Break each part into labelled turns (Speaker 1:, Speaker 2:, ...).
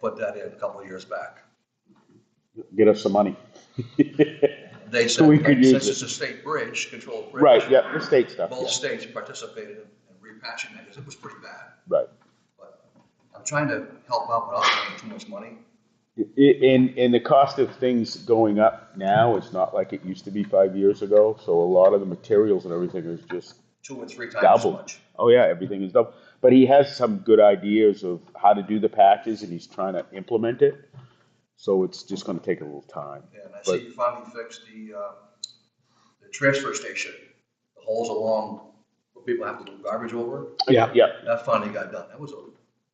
Speaker 1: put that in a couple of years back.
Speaker 2: Get us some money.
Speaker 1: They
Speaker 2: So
Speaker 1: said,
Speaker 2: we could use
Speaker 1: since
Speaker 2: it.
Speaker 1: it's a state bridge, controlled bridge.
Speaker 2: Right, yeah, the state stuff,
Speaker 1: Both
Speaker 2: yeah,
Speaker 1: states participated in repatching that because it was pretty bad.
Speaker 2: right.
Speaker 1: But I'm trying to help out without spending too much money.
Speaker 2: I- And, and the cost of things going up now is not like it used to be five years ago, so a lot of the materials and everything is just
Speaker 1: two and three times as
Speaker 2: double.
Speaker 1: much.
Speaker 2: Oh yeah, everything is double. But he has some good ideas of how to do the patches, and he's trying to implement it. So it's just going to take a little time.
Speaker 1: And I
Speaker 2: But-
Speaker 1: see you finally fixed the, uh, the transfer station, the holes along where people have to do garbage over.
Speaker 3: Yeah.
Speaker 2: Yep,
Speaker 1: That finally got done. That was a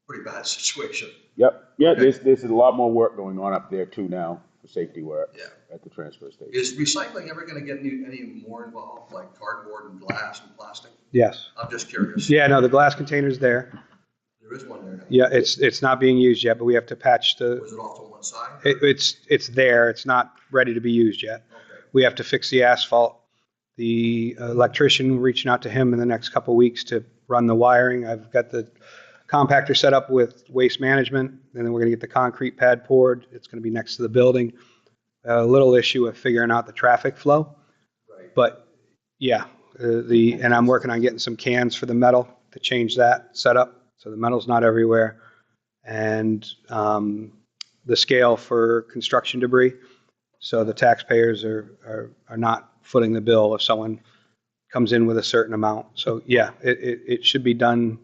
Speaker 1: pretty bad situation.
Speaker 2: yep, yeah. There's there's a lot more work going on up there too now for safety work
Speaker 1: Yeah.
Speaker 2: at the transfer station.
Speaker 1: Is recycling ever gonna get any, any more involved, like cardboard and glass and plastic?
Speaker 3: Yes.
Speaker 1: I'm just curious.
Speaker 3: Yeah, no, the glass container's there.
Speaker 1: There is one there now.
Speaker 3: Yeah, it's, it's not being used yet, but we have to patch the,
Speaker 1: Was it off to one side?
Speaker 3: it, it's, it's there. It's not ready to be used yet.
Speaker 1: Okay.
Speaker 3: We have to fix the asphalt. The electrician, we're reaching out to him in the next couple weeks to run the wiring. I've got the compactor set up with waste management, and then we're gonna get the concrete pad poured. It's gonna be next to the building. A little issue of figuring out the traffic flow,
Speaker 1: Right.
Speaker 3: but yeah, uh, the, and I'm working on getting some cans for the metal to change that setup, so the metal's not everywhere. And um, the scale for construction debris, so the taxpayers are, are, are not footing the bill if someone comes in with a certain amount. So yeah, it, it, it should be done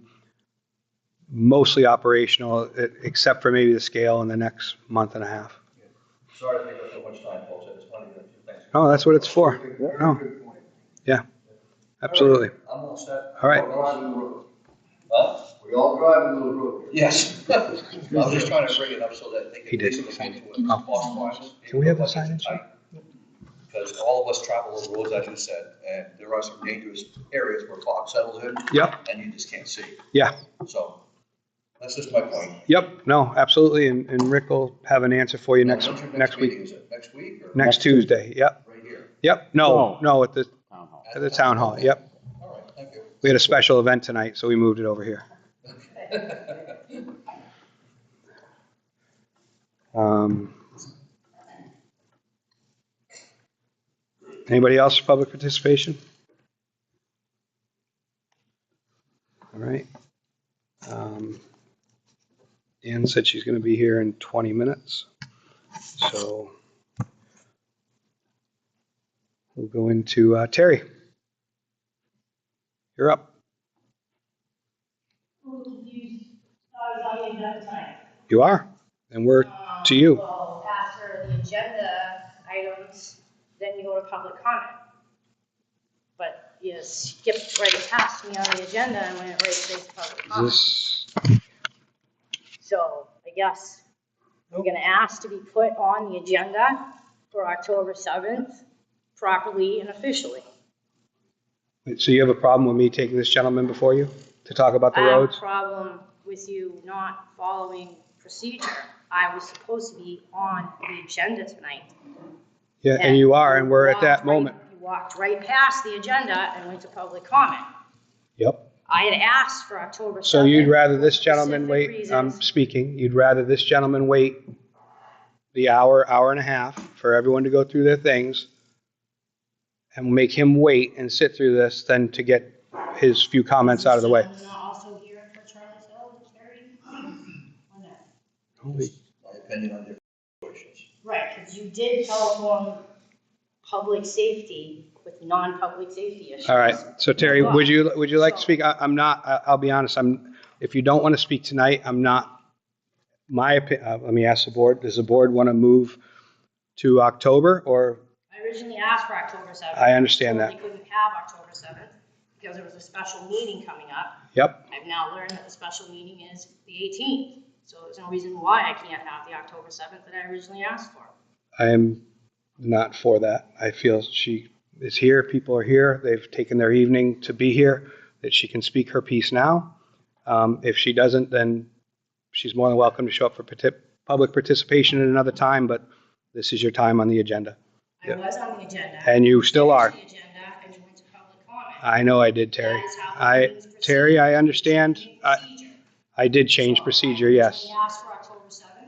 Speaker 3: mostly operational, e- except for maybe the scale in the next month and a half.
Speaker 1: Sorry to take up so much time, folks. I just wanted to, thanks.
Speaker 3: Oh, that's what it's for. No. Yeah, absolutely.
Speaker 1: I'm all set.
Speaker 3: All right.
Speaker 4: We're all driving the road.
Speaker 1: Huh?
Speaker 4: We all driving the road.
Speaker 1: Yes. I was just trying to bring it up so that they
Speaker 3: He
Speaker 1: could
Speaker 3: did.
Speaker 1: listen to it.
Speaker 3: Oh. Can we have the signage?
Speaker 1: Because all of us travel those roads, as you said, and there are some dangerous areas where fog settles in
Speaker 3: Yep,
Speaker 1: and you just can't see.
Speaker 3: yeah,
Speaker 1: So that's just my point.
Speaker 3: yep, no, absolutely, and, and Rick will have an answer for you next,
Speaker 1: When's your
Speaker 3: next
Speaker 1: meeting?
Speaker 3: week,
Speaker 1: Is it next week or
Speaker 3: next Tuesday, yep,
Speaker 1: right here?
Speaker 3: yep, no,
Speaker 2: No.
Speaker 3: no, at the,
Speaker 2: Town hall.
Speaker 3: at the town hall, yep.
Speaker 1: All right, thank you.
Speaker 3: We had a special event tonight, so we moved it over here. Um, Anybody else for public participation? All right. Um, Ann said she's going to be here in 20 minutes, so we'll go into uh, Terry. You're up.
Speaker 5: a little confused, I was on the agenda tonight.
Speaker 3: You are, and we're to you.
Speaker 5: Well, after the agenda items, then you go to public comment. But you skipped right past me on the agenda and went right straight to public
Speaker 3: Is
Speaker 5: comment.
Speaker 3: this,
Speaker 5: So I guess I'm gonna ask to be put on the agenda for October seventh properly and officially.
Speaker 3: wait, so you have a problem with me taking this gentleman before you to talk about the
Speaker 5: I have a
Speaker 3: roads?
Speaker 5: problem with you not following procedure. I was supposed to be on the agenda tonight.
Speaker 3: Yeah, and you are, and we're at that
Speaker 5: walked right-
Speaker 3: moment.
Speaker 5: You walked right past the agenda and went to public comment.
Speaker 3: Yep.
Speaker 5: I had asked for October 7th.
Speaker 3: So you'd rather this gentleman
Speaker 5: specific
Speaker 3: wait, I'm
Speaker 5: reasons.
Speaker 3: speaking, you'd rather this gentleman wait the hour, hour and a half for everyone to go through their things and make him wait and sit through this than to get his few comments out of the way.
Speaker 5: Is someone also here for Charlie's Hill, Terry? Or no?
Speaker 1: My opinion on different questions.
Speaker 5: Right, because you did telephone public safety with non-public safety issues.
Speaker 3: All right, so Terry, would you, would you like to speak? I- I'm not, I- I'll be honest, I'm, if you don't want to speak tonight, I'm not, my, opi- uh, let me ask the board, does the board want to move to October, or,
Speaker 5: I originally asked for October 7th.
Speaker 3: I understand
Speaker 5: Told
Speaker 3: that.
Speaker 5: they couldn't have October 7th because there was a special meeting coming up.
Speaker 3: yep,
Speaker 5: I've now learned that the special meeting is the 18th, so there's no reason why I can't have the October 7th that I originally asked for.
Speaker 3: I am not for that. I feel she is here, people are here, they've taken their evening to be here, that she can speak her piece now. Um, If she doesn't, then she's more than welcome to show up for parti- public participation at another time, but this is your time on the agenda,
Speaker 5: I was on the agenda.
Speaker 3: and you still are.
Speaker 5: Finished the agenda and you went to public comment.
Speaker 3: I know I did, Terry.
Speaker 5: That is how the
Speaker 3: I,
Speaker 5: meetings proceed.
Speaker 3: Terry, I understand.
Speaker 5: Changing
Speaker 3: I,
Speaker 5: procedure.
Speaker 3: I did change
Speaker 5: So,
Speaker 3: procedure, yes.
Speaker 5: I originally asked for